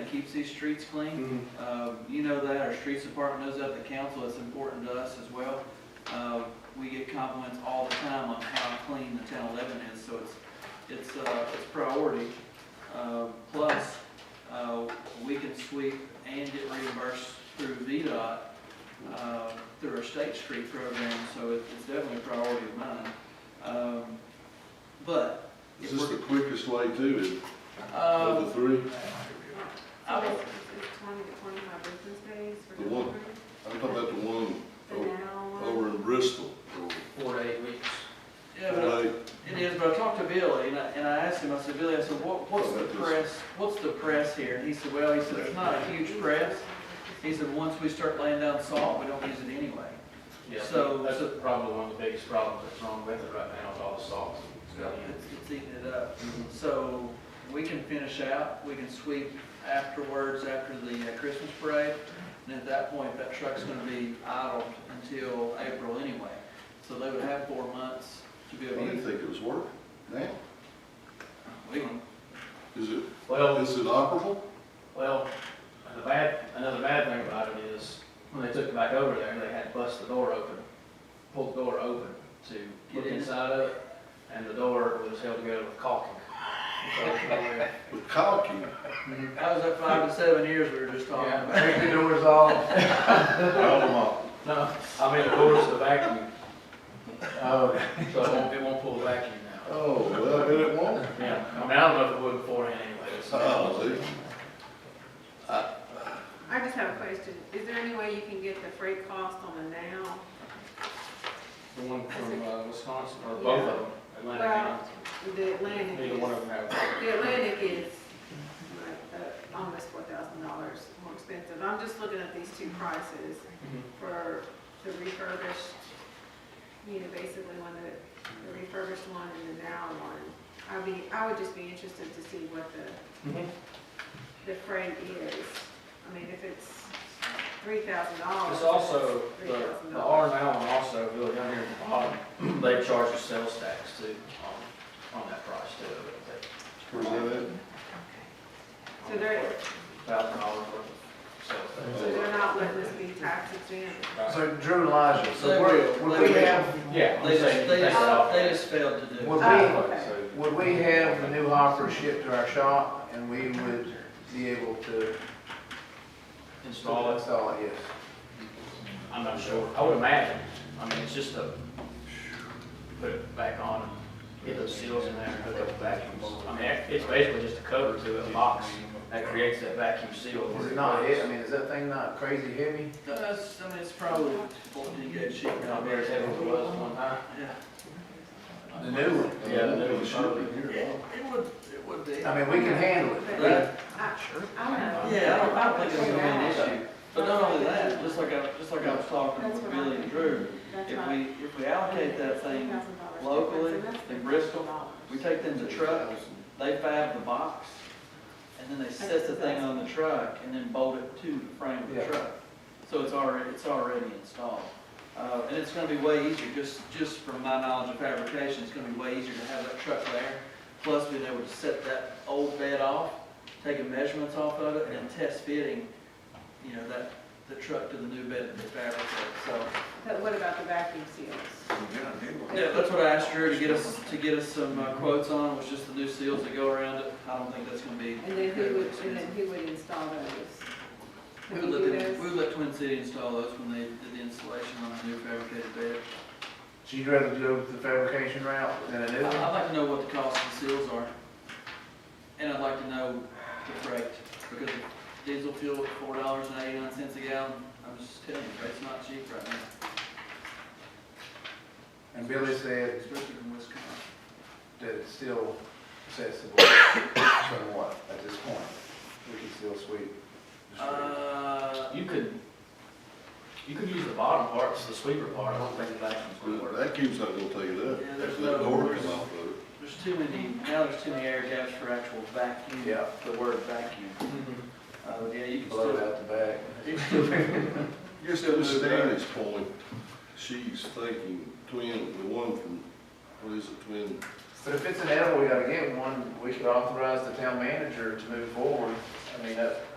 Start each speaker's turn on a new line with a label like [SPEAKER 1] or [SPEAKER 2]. [SPEAKER 1] that keeps these streets clean.
[SPEAKER 2] Mhm.
[SPEAKER 1] Um, You know that, our streets department knows that, the council, it's important to us as well. Uh, We get compliments all the time on how clean the town eleven is, so it's, it's, uh, it's priority. Uh, Plus, uh, we can sweep and get reimbursed through VDOT, uh, through our state street program, so it- it's definitely a priority of mine. Um, But,
[SPEAKER 2] Is
[SPEAKER 1] if
[SPEAKER 2] this
[SPEAKER 1] we're,
[SPEAKER 2] the quickest way to it, of
[SPEAKER 1] um,
[SPEAKER 2] the three?
[SPEAKER 1] I
[SPEAKER 3] So
[SPEAKER 1] would-
[SPEAKER 3] it's it's twenty to twenty-five business days for
[SPEAKER 2] The what?
[SPEAKER 3] delivery,
[SPEAKER 2] I'm talking about the one
[SPEAKER 3] the
[SPEAKER 2] o-
[SPEAKER 3] now
[SPEAKER 2] over
[SPEAKER 3] one.
[SPEAKER 2] in Bristol.
[SPEAKER 4] four to eight weeks.
[SPEAKER 1] yeah, but
[SPEAKER 2] Like,
[SPEAKER 1] It is, but I talked to Billy, and I, and I asked him, I said, Billy, I said, what, what's the press, what's the press here? And he said, well, he said, it's not a huge press. He said, once we start laying down salt, we don't use it anyway.
[SPEAKER 4] Yeah,
[SPEAKER 1] So-
[SPEAKER 4] that's probably one of the biggest problems that's wrong with it right now is all the salt.
[SPEAKER 1] So it's, it's eating it up. So we can finish out, we can sweep afterwards, after the uh, Christmas parade. And at that point, that truck's gonna be idled until April anyway. So they would have four months to be
[SPEAKER 2] I
[SPEAKER 1] able to
[SPEAKER 2] didn't
[SPEAKER 1] use it.
[SPEAKER 2] think it was working. Now,
[SPEAKER 1] We can-
[SPEAKER 2] is it,
[SPEAKER 4] Well,
[SPEAKER 2] is it operable?
[SPEAKER 4] well, the bad, another bad thing about it is, when they took it back over there, they had to bust the door open, pull the door open to
[SPEAKER 1] Get
[SPEAKER 4] get
[SPEAKER 1] in.
[SPEAKER 4] inside of it, and the door was held together with caulking. So, yeah,
[SPEAKER 2] With caulking,
[SPEAKER 1] That was that five to seven years we were just talking about.
[SPEAKER 4] the doors off.
[SPEAKER 2] I
[SPEAKER 4] No, I mean, the doors to vacuum. Oh, so it won't, it won't pull the vacuum now.
[SPEAKER 2] don't Oh, well, I bet it won't.
[SPEAKER 4] Yeah, I mean, I don't know if it would beforehand anyway. so-
[SPEAKER 2] Oh, see?
[SPEAKER 3] I just have a question, is there any way you can get the freight cost on the now?
[SPEAKER 4] The one from uh, Wisconsin, or both of them, Atlantic
[SPEAKER 3] Well,
[SPEAKER 4] and,
[SPEAKER 3] The Atlantic
[SPEAKER 4] neither
[SPEAKER 3] is,
[SPEAKER 4] one of them have.
[SPEAKER 3] the Atlantic is like, uh, almost four thousand dollars more expensive. I'm just looking at these two prices for the refurbished, you know, basically one of the, the refurbished one and the now one. I mean, I would just be interested to see what the
[SPEAKER 4] Mm-hmm.
[SPEAKER 3] the freight is. I mean, if it's three thousand dollars.
[SPEAKER 4] It's also, the, the R and L one also, really down here at the bottom, they charge a sales tax too, on, on that price too.
[SPEAKER 2] Where's that
[SPEAKER 3] So they're,
[SPEAKER 4] Thousand dollars worth of
[SPEAKER 3] so they're not letting us be tax exempt.
[SPEAKER 4] sales tax.
[SPEAKER 5] So Drew and Elijah,
[SPEAKER 1] They
[SPEAKER 5] so we're-
[SPEAKER 1] will,
[SPEAKER 5] would
[SPEAKER 1] they
[SPEAKER 5] we
[SPEAKER 1] will.
[SPEAKER 5] have,
[SPEAKER 4] Yeah, I'm
[SPEAKER 1] They
[SPEAKER 4] saying
[SPEAKER 1] just, they
[SPEAKER 4] that's
[SPEAKER 1] just,
[SPEAKER 4] all.
[SPEAKER 1] they just failed to do
[SPEAKER 5] would
[SPEAKER 1] it.
[SPEAKER 3] Oh,
[SPEAKER 5] we,
[SPEAKER 3] okay.
[SPEAKER 5] would we have the new hopper shipped to our shop and we would be able to
[SPEAKER 4] Install it,
[SPEAKER 5] install it, yes?
[SPEAKER 4] I'm not sure, I would imagine, I mean, it's just a, put it back on, get those seals in there, and hook up the vacuums. I mean, that- it's basically just a cover to a box that creates that vacuum seal. where
[SPEAKER 5] Is it not,
[SPEAKER 4] goes.
[SPEAKER 5] I mean, is that thing not crazy heavy?
[SPEAKER 1] That's, uh, I mean, it's probably fourteen gauge sheet
[SPEAKER 4] Not
[SPEAKER 1] metal
[SPEAKER 4] very
[SPEAKER 1] there.
[SPEAKER 4] heavy as it was one time.
[SPEAKER 1] Yeah,
[SPEAKER 5] The new one?
[SPEAKER 2] at?
[SPEAKER 4] Yeah, they
[SPEAKER 2] It
[SPEAKER 4] were
[SPEAKER 2] should be here. huh?
[SPEAKER 1] it would, it would be.
[SPEAKER 5] I mean, we can handle it.
[SPEAKER 1] But-
[SPEAKER 3] Sure. I don't know.
[SPEAKER 1] Yeah, I don't, I don't think it's gonna be an issue. But not only that, just like I, just like I was talking
[SPEAKER 3] That's
[SPEAKER 1] with
[SPEAKER 3] what I
[SPEAKER 1] Billy and
[SPEAKER 3] think.
[SPEAKER 1] Drew,
[SPEAKER 3] That's
[SPEAKER 1] if
[SPEAKER 3] right.
[SPEAKER 1] we, if we allocate that thing,
[SPEAKER 3] $3,000
[SPEAKER 1] locally
[SPEAKER 3] difference, and that's
[SPEAKER 1] in Bristol,
[SPEAKER 3] $3,000.
[SPEAKER 1] we take them to truck, they fab the box, and then they set the thing on the truck and then bolt it to the frame of the
[SPEAKER 5] Yeah.
[SPEAKER 1] truck. So it's already, it's already installed. Uh, and it's gonna be way easier, just, just from my knowledge of fabrication, it's gonna be way easier to have that truck there. Plus being able to set that old bed off, taking measurements off of it and test fitting, you know, that, the truck to the new bed that they fabricate, so.
[SPEAKER 3] But what about the vacuum seals?
[SPEAKER 1] Yeah, that's what I asked Drew to get us, to get us some uh, quotes on, was just the new seals that go around it. I don't think that's gonna be.
[SPEAKER 3] And then who would, and then
[SPEAKER 1] expensive.
[SPEAKER 3] who would install those?
[SPEAKER 1] We
[SPEAKER 3] Could
[SPEAKER 1] would
[SPEAKER 3] you
[SPEAKER 1] let
[SPEAKER 3] do
[SPEAKER 1] them, we
[SPEAKER 3] those?
[SPEAKER 1] would let Twin City install those when they did the installation on the new fabricated bed.
[SPEAKER 5] So you'd rather go the fabrication route than a new
[SPEAKER 1] I-
[SPEAKER 5] one?
[SPEAKER 1] I'd like to know what the cost of the seals are. And I'd like to know the freight, because diesel fuel at four dollars and eighty-nine cents a gallon, I'm just telling you, it's not cheap right now,
[SPEAKER 5] And Billy said
[SPEAKER 1] especially from Wisconsin.
[SPEAKER 5] that it's still accessible somewhat at this point. We can still sweep. the street.
[SPEAKER 1] Uh,
[SPEAKER 4] You could, you could use the bottom parts, the sweeper part, I don't think the vacuum's gonna
[SPEAKER 2] But
[SPEAKER 4] work.
[SPEAKER 2] That keeps not gonna take it up.
[SPEAKER 1] Yeah, there's
[SPEAKER 2] That's
[SPEAKER 1] no-
[SPEAKER 2] that door come off of it.
[SPEAKER 1] there's too many, now there's too many air gaps for actual vacuum.
[SPEAKER 5] Yeah,
[SPEAKER 1] The word vacuum.
[SPEAKER 5] Mm-hmm.
[SPEAKER 1] Uh, yeah, you can
[SPEAKER 5] blow it
[SPEAKER 1] still.
[SPEAKER 5] out the back.
[SPEAKER 1] you can still-
[SPEAKER 2] Just to Stanley's point, she's thinking twin, the one from, what is it, twin?
[SPEAKER 5] But if it's an animal, we gotta get one, we could authorize the town manager to move forward. I mean, that,